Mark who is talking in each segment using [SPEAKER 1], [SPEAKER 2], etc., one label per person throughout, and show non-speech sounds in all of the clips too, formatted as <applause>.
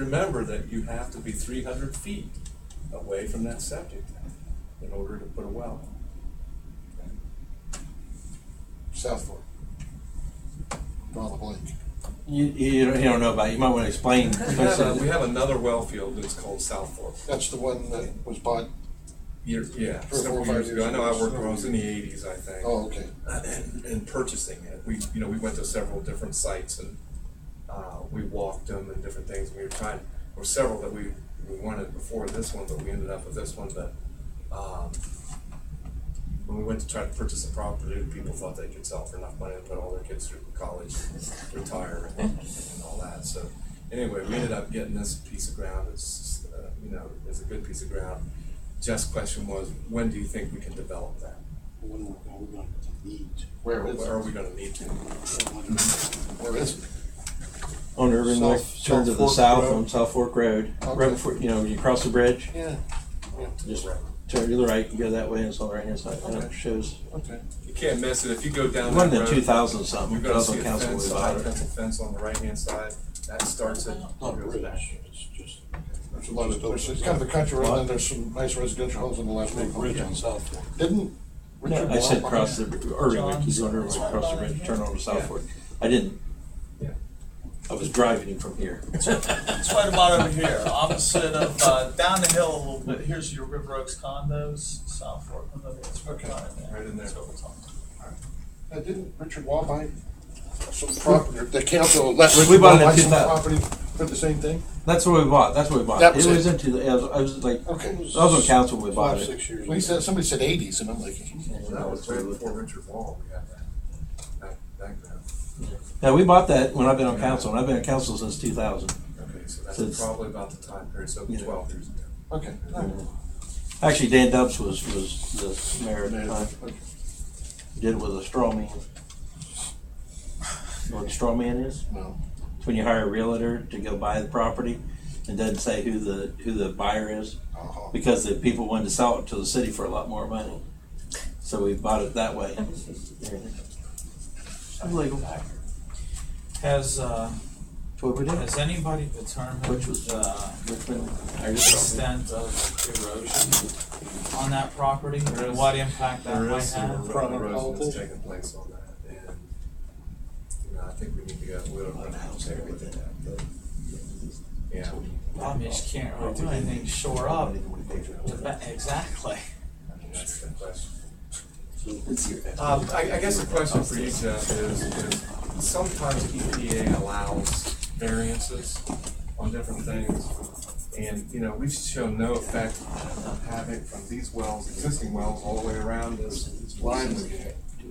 [SPEAKER 1] Remember that you have to be three hundred feet away from that septic tank in order to put a well.
[SPEAKER 2] South Fork. Draw the blank.
[SPEAKER 3] You, you, don't, you don't know about it. You might want
[SPEAKER 4] <laughs>
[SPEAKER 3] to explain.
[SPEAKER 1] We have, a- we have another well field that's called South Fork.
[SPEAKER 2] That's the one that was bought,
[SPEAKER 1] Years, yeah,
[SPEAKER 2] Three or four,
[SPEAKER 1] several
[SPEAKER 2] five
[SPEAKER 1] years ago. I
[SPEAKER 2] years
[SPEAKER 1] know I
[SPEAKER 2] ago.
[SPEAKER 1] worked when I was in the eighties, I think.
[SPEAKER 2] oh, okay.
[SPEAKER 1] and, and uh, purchasing it. We, you know, we went to several different sites and, uh, we walked them and different things. We were trying, there were several that we, we wanted before this one, but we ended up with this one, but, um, when we went to try to purchase the property, people thought they could sell for enough money to put all their kids through college, <laughs> retire and, and all that, so. Anyway, we ended up getting this piece of ground, it's, uh, you know, it's a good piece of ground. Jeff's question was, when do you think we can develop that?
[SPEAKER 5] When are we going to need?
[SPEAKER 2] Where
[SPEAKER 1] Or
[SPEAKER 2] is
[SPEAKER 1] are
[SPEAKER 2] it?
[SPEAKER 1] we gonna need to?
[SPEAKER 2] Where is it?
[SPEAKER 3] on Irving
[SPEAKER 2] South-
[SPEAKER 3] North,
[SPEAKER 2] South
[SPEAKER 3] turn to the
[SPEAKER 2] Fork
[SPEAKER 3] south
[SPEAKER 2] Road.
[SPEAKER 3] on South Fork Road. Right
[SPEAKER 2] Okay.
[SPEAKER 3] before, you know, you cross the bridge,
[SPEAKER 2] Yeah,
[SPEAKER 3] just
[SPEAKER 1] Right.
[SPEAKER 3] turn to the right and go that way, and it's on the right hand side. And it shows.
[SPEAKER 2] okay.
[SPEAKER 1] You can't miss it, if you go down
[SPEAKER 3] It
[SPEAKER 1] that
[SPEAKER 3] wasn't in
[SPEAKER 1] road.
[SPEAKER 3] 2000 something.
[SPEAKER 1] You're gonna see
[SPEAKER 3] Council
[SPEAKER 1] a
[SPEAKER 3] Council
[SPEAKER 1] fence,
[SPEAKER 3] was
[SPEAKER 1] a high
[SPEAKER 3] about it.
[SPEAKER 1] fence, a fence on the right-hand side, that starts it.
[SPEAKER 5] Not
[SPEAKER 1] goes
[SPEAKER 5] Oh, really,
[SPEAKER 1] back.
[SPEAKER 5] it's just
[SPEAKER 2] There's a lot of, there's, it's kind of a country road, and there's some nice residential homes on the last
[SPEAKER 5] big
[SPEAKER 2] one.
[SPEAKER 5] bridge on South Fork.
[SPEAKER 2] Didn't Richard?
[SPEAKER 3] I said
[SPEAKER 2] Blount-
[SPEAKER 3] cross the Irving. Like he's on Irving, cross the bridge, turn on to South
[SPEAKER 1] Yeah.
[SPEAKER 3] Fork. I didn't.
[SPEAKER 1] Yeah.
[SPEAKER 3] I was driving him from here.
[SPEAKER 4] It's right about over here, opposite of, uh, down the hill a little bit, here's your River Oaks condos, South Fork, I don't know, it's right in there.
[SPEAKER 1] Right in there.
[SPEAKER 4] That's what we're talking about.
[SPEAKER 2] Uh, Didn't Richard Wabai some property, or the council let
[SPEAKER 3] We
[SPEAKER 2] Richard
[SPEAKER 3] bought it in
[SPEAKER 2] Wabai some
[SPEAKER 3] 2000.
[SPEAKER 2] property for the same thing?
[SPEAKER 3] That's what we bought. That's what we bought.
[SPEAKER 2] That was
[SPEAKER 3] it
[SPEAKER 2] it.
[SPEAKER 3] was into. The, I, was, I was like.
[SPEAKER 2] Okay.
[SPEAKER 3] I was on council when we bought
[SPEAKER 5] Five,
[SPEAKER 3] it.
[SPEAKER 5] six years.
[SPEAKER 2] Well, he said, somebody said eighties, and I'm like,
[SPEAKER 1] That was way before Richard Wall, we had that, that, that ground.
[SPEAKER 3] Now we bought that when I've been on council, and I've been on council since 2000.
[SPEAKER 1] Okay, so
[SPEAKER 3] So it's-
[SPEAKER 1] that's probably about the time period, so
[SPEAKER 3] Yeah.
[SPEAKER 1] twelve years ago.
[SPEAKER 2] okay.
[SPEAKER 3] Actually, Dan Dubs was was the mayor at the time.
[SPEAKER 2] Okay.
[SPEAKER 3] did with a straw man. You know what a straw man is?
[SPEAKER 2] No.
[SPEAKER 3] It's when you hire a realtor to go buy the property and doesn't say who the who the buyer is
[SPEAKER 2] Uh-huh.
[SPEAKER 3] because the people wanted to sell it to the city for a lot more money. So we bought it that way. Illegal.
[SPEAKER 6] Has, uh,
[SPEAKER 3] That's what we did.
[SPEAKER 6] has anybody determined
[SPEAKER 3] Which was-
[SPEAKER 6] the
[SPEAKER 3] Richmond. I just-
[SPEAKER 6] extent of erosion on that property? and What impact that
[SPEAKER 1] There
[SPEAKER 6] might
[SPEAKER 1] is some
[SPEAKER 6] have?
[SPEAKER 1] erosion that's
[SPEAKER 2] Probably.
[SPEAKER 1] taking place on that, and, you know, I think we need to go, we'll run out and check with that. Yeah.
[SPEAKER 6] Problem is, you can't really do anything to shore up. the ba- Exactly.
[SPEAKER 1] I mean, That's the question. Um, I, I guess the question for you, Jeff, is, is sometimes EPA allows variances on different things. And, you know, we've shown no effect of having from these wells, existing wells, all the way around this line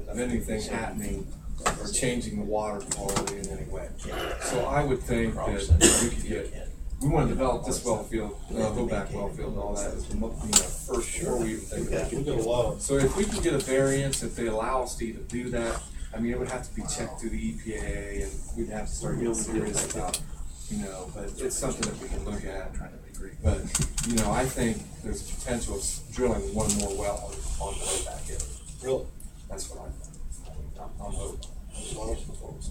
[SPEAKER 1] of anything happening or changing the water quality in any way. So I would think that we could get, we wanna develop this well field, uh, go back well field and all that, as mo- you know, first, before we even think about it.
[SPEAKER 5] We got a lot of
[SPEAKER 1] So if we can get a variance, if they allow us to even do that, I mean, it would have to be checked through the EPA and we'd have to start getting serious about, you know, but it's something that we can look at. But, you know, I think there's potential of drilling one more well on on the way back in.
[SPEAKER 5] really,
[SPEAKER 1] That's what I think. I'm, I'm hoping.
[SPEAKER 5] as long as, because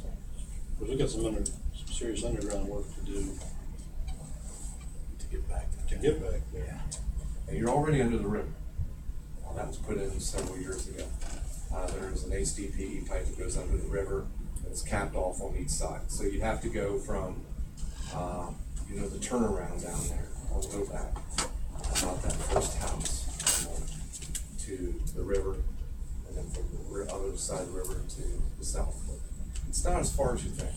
[SPEAKER 5] we got some under, some serious underground work to do
[SPEAKER 1] To get back
[SPEAKER 5] to get back there.
[SPEAKER 1] And you're already under the river. Well, That was put in several years ago. Uh, there's an HDPE pipe that goes under the river, and it's capped off on each side. So you'd have to go from, uh, you know, the turnaround down there, all the way back, uh, about that first house, you know, to the river, and then from the ri- other side of the river to the south. But It's not as far as you think.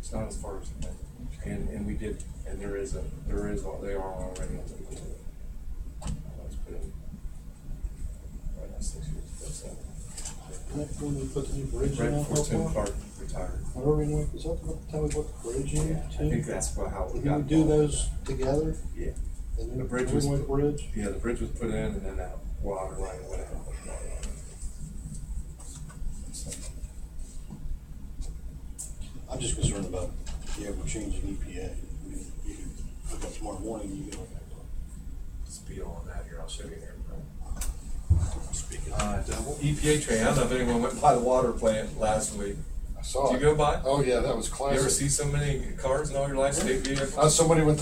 [SPEAKER 1] It's not as far as you think. And, and we did, and there is a, there is, al- they are already on the river. That's pretty- right, that's six years ago, seven.
[SPEAKER 5] Next one, we put the new bridge
[SPEAKER 1] Right
[SPEAKER 5] in on
[SPEAKER 1] before
[SPEAKER 5] top
[SPEAKER 1] Tim
[SPEAKER 5] of.
[SPEAKER 1] Clark retired.
[SPEAKER 5] Whatever we want, is that about the time we put the bridge in?
[SPEAKER 1] Yeah, I think that's about how we
[SPEAKER 5] Did we
[SPEAKER 1] got.
[SPEAKER 5] do
[SPEAKER 1] involved.
[SPEAKER 5] those together?
[SPEAKER 1] Yeah.
[SPEAKER 5] And then
[SPEAKER 1] The bridge
[SPEAKER 5] we
[SPEAKER 1] was-
[SPEAKER 5] went Bridge?
[SPEAKER 1] Yeah, the bridge was put in and then that water line went out.
[SPEAKER 5] I'm just concerned about the ever changing EPA. I mean, you can, look up tomorrow morning, you can,
[SPEAKER 1] Speed on that here, I'll show you here. E
[SPEAKER 5] speaking.
[SPEAKER 1] Uh, double EPA train, I don't know if anyone went by the water plant last week.
[SPEAKER 2] I saw
[SPEAKER 1] Do you
[SPEAKER 2] it.
[SPEAKER 1] go by?
[SPEAKER 2] Oh, yeah, that was
[SPEAKER 1] You ever
[SPEAKER 2] classic. Oh,
[SPEAKER 1] see so many cars in all your life, state vehicles?
[SPEAKER 2] Uh, somebody went